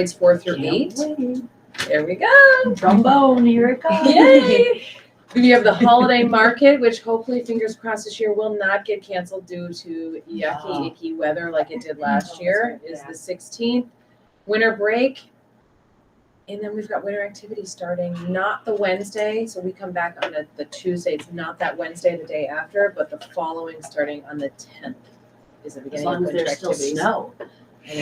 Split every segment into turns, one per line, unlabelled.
grades four through eight. There we go.
Trombone, here it
Yay! We have the holiday market, which hopefully, fingers crossed, this year will not get canceled due to
No.
yucky, icky weather like it did
Oh,
last
it's
year.
been
Is the
bad.
sixteenth, winter break. And then we've got winter activities starting, not the Wednesday, so we come back on the, the Tuesday. It's not that Wednesday, the day after, but the following, starting on the tenth, is the
As
beginning of
long as
winter
there's still
activities.
snow.
I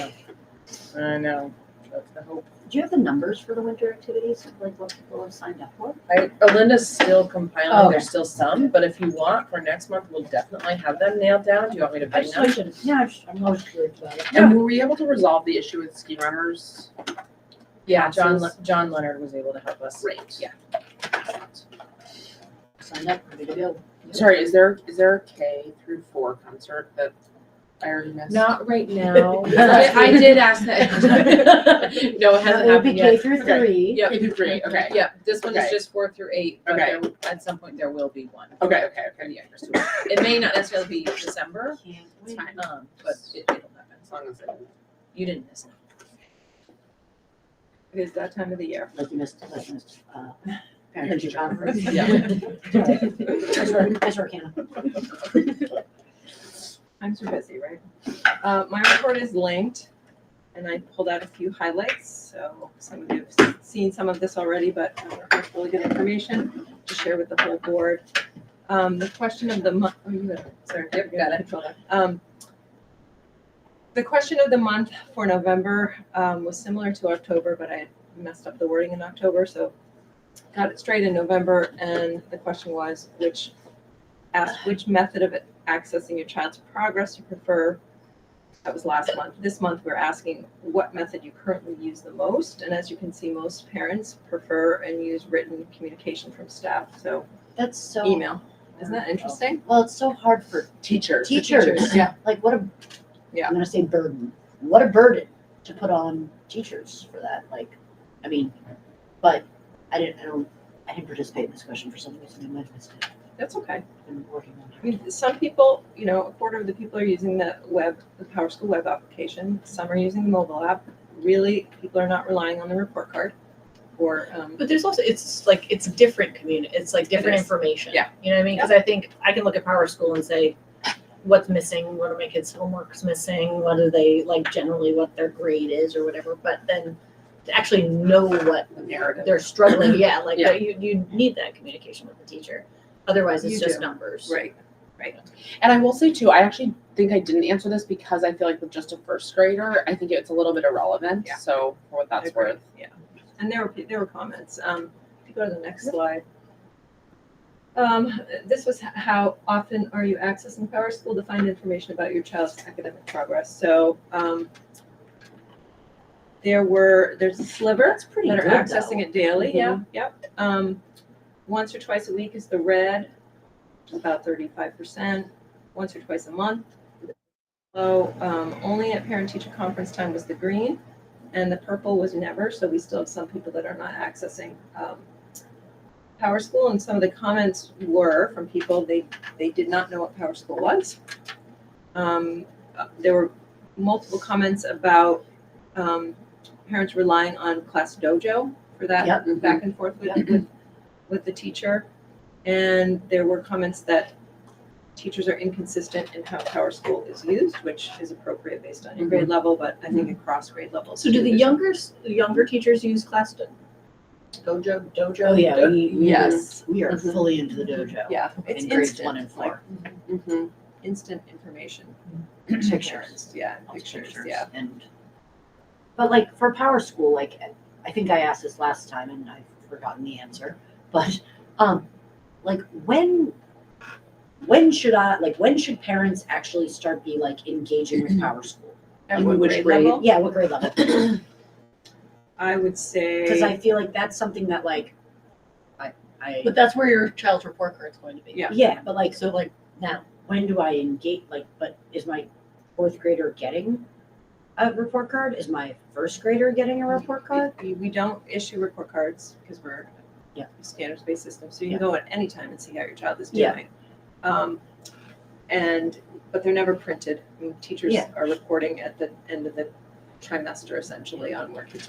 know. I know. That's the hope.
Do you have the numbers for the winter activities, like what people have signed up for?
I, Olinda's still compiling,
Okay.
there's still some, but if you want, for next month, we'll definitely have them nailed down, do you want me to bring them?
should, yeah, I'm, I'm always curious about it.
And were we able to resolve the issue with ski runners?
Yeah, John, Le- John Leonard was able to help us.
Great.
Yeah.
Signed up, ready to go.
Sorry, is there, is there a K through four concert that I already missed?
Not right now, I I did ask that. No, it hasn't
It'll be
happened
K
yet.
through
Okay.
three.
Yep,
K through three, okay.
yep, this one is
Okay.
just four through eight, but
Okay.
there, at some point, there will be one.
Okay, okay,
for
okay.
the younger students. It may not necessarily be December,
It's fine,
um, but it, it'll happen,
as long as it.
you didn't miss it.
It is that time of the year.
Like you missed, like you missed, uh, parent teacher conference.
Yeah.
Nice work, nice work, Hannah.
I'm too busy, right? Uh, my report is linked, and I pulled out a few highlights. So some of you have seen some of this already, but uh, it's really good information to share with the whole board. Um, the question of the month. Oh, you got it. Sorry,
Yep,
you
got it.
Control F. Um, the question of the month for November um, was similar to October, but I messed up the wording in October, so got it straight in November. And the question was, which asked which method of accessing your child's progress you prefer. That was last month. This month, we're asking what method you currently use the most. And as you can see, most parents prefer and use written communication from staff. So
That's so,
email. Isn't that interesting?
well, it's so hard for
Teachers.
teachers,
Yeah.
like what a,
Yeah.
I'm gonna say burden, what a burden to put on teachers for that, like, I mean, but I didn't, I don't, I didn't participate in this question for some reason, I might have missed it,
That's okay.
I've been working on
I mean, some people, you know, a quarter of the people are using the web, the PowerSchool web application. Some are using the mobile app. Really, people are not relying on the report card or, um,
But there's also it's like it's different community. It's like different
is.
information.
Yeah.
You know what I mean? Because I think I can look at Power School and say, what's missing? What are my kids' homeworks missing? What are they like generally? What their grade is or whatever. But then to actually know what
the narrative.
they're struggling, yeah, like
Yeah.
you you need that communication with the teacher. Otherwise, it's
You
just
do.
numbers.
Right.
And I will say too, I actually think I didn't answer this because I feel like with just a first grader, I think it's a little bit irrelevant.
Yeah.
So for what
I
that's
agree.
worth.
Yeah, and there were, pe- there were comments. Um, if you go to the next slide. Um, this was h- how often are you accessing Power School to find information about your child's academic progress? So, um, there were, there's a sliver
That's pretty
that are
good,
accessing it daily, yeah, yep. Um, once or twice a week is the red, about thirty-five percent, once or twice a month. So, um, only at parent-teacher conference time was the green, and the purple was never, so we still have some people that are not accessing, um, Power School, and some of the comments were from people, they, they did not know what Power School was. Um, uh, there were multiple comments about, um, parents relying on Class Dojo for that
Yep.
back and forth with, with, with the teacher. And there were comments that teachers are inconsistent in how Power School is used, which is appropriate based on your grade
Mm-hmm.
level, but I think across grade levels.
So do the
there's
younger s- younger teachers use class do- dojo dojo?
Oh, yeah, we, we are,
Yes.
we are fully into the dojo
Yeah, it's
in grades one
instant,
and four,
Mm-hmm.
like, instant information. to
pictures.
parents. Yeah,
lots of
pictures, yeah.
And, but like for Power School, like, I think I asked this last time and I've forgotten the answer, but, um, like, when, when should I, like, when should parents actually start be like engaging with Power School?
At
In
what
which
grade
grade?
level?
Yeah, what grade level?
I would
Cause I
say,
feel like that's something that like, I, I,
But that's where your child's report card's going to be.
Yeah.
yeah, but like, so like, now, when do I engage, like, but is my fourth grader getting a report card? Is my first grader getting a report card?
we, we don't issue report cards because we're
Yeah.
a standards-based system, so you
Yeah.
can go at any time and see how your child is
Yeah.
doing. Um, and, but they're never printed. I mean, teachers
Yeah.
are reporting at the end of the trimester essentially on where kids are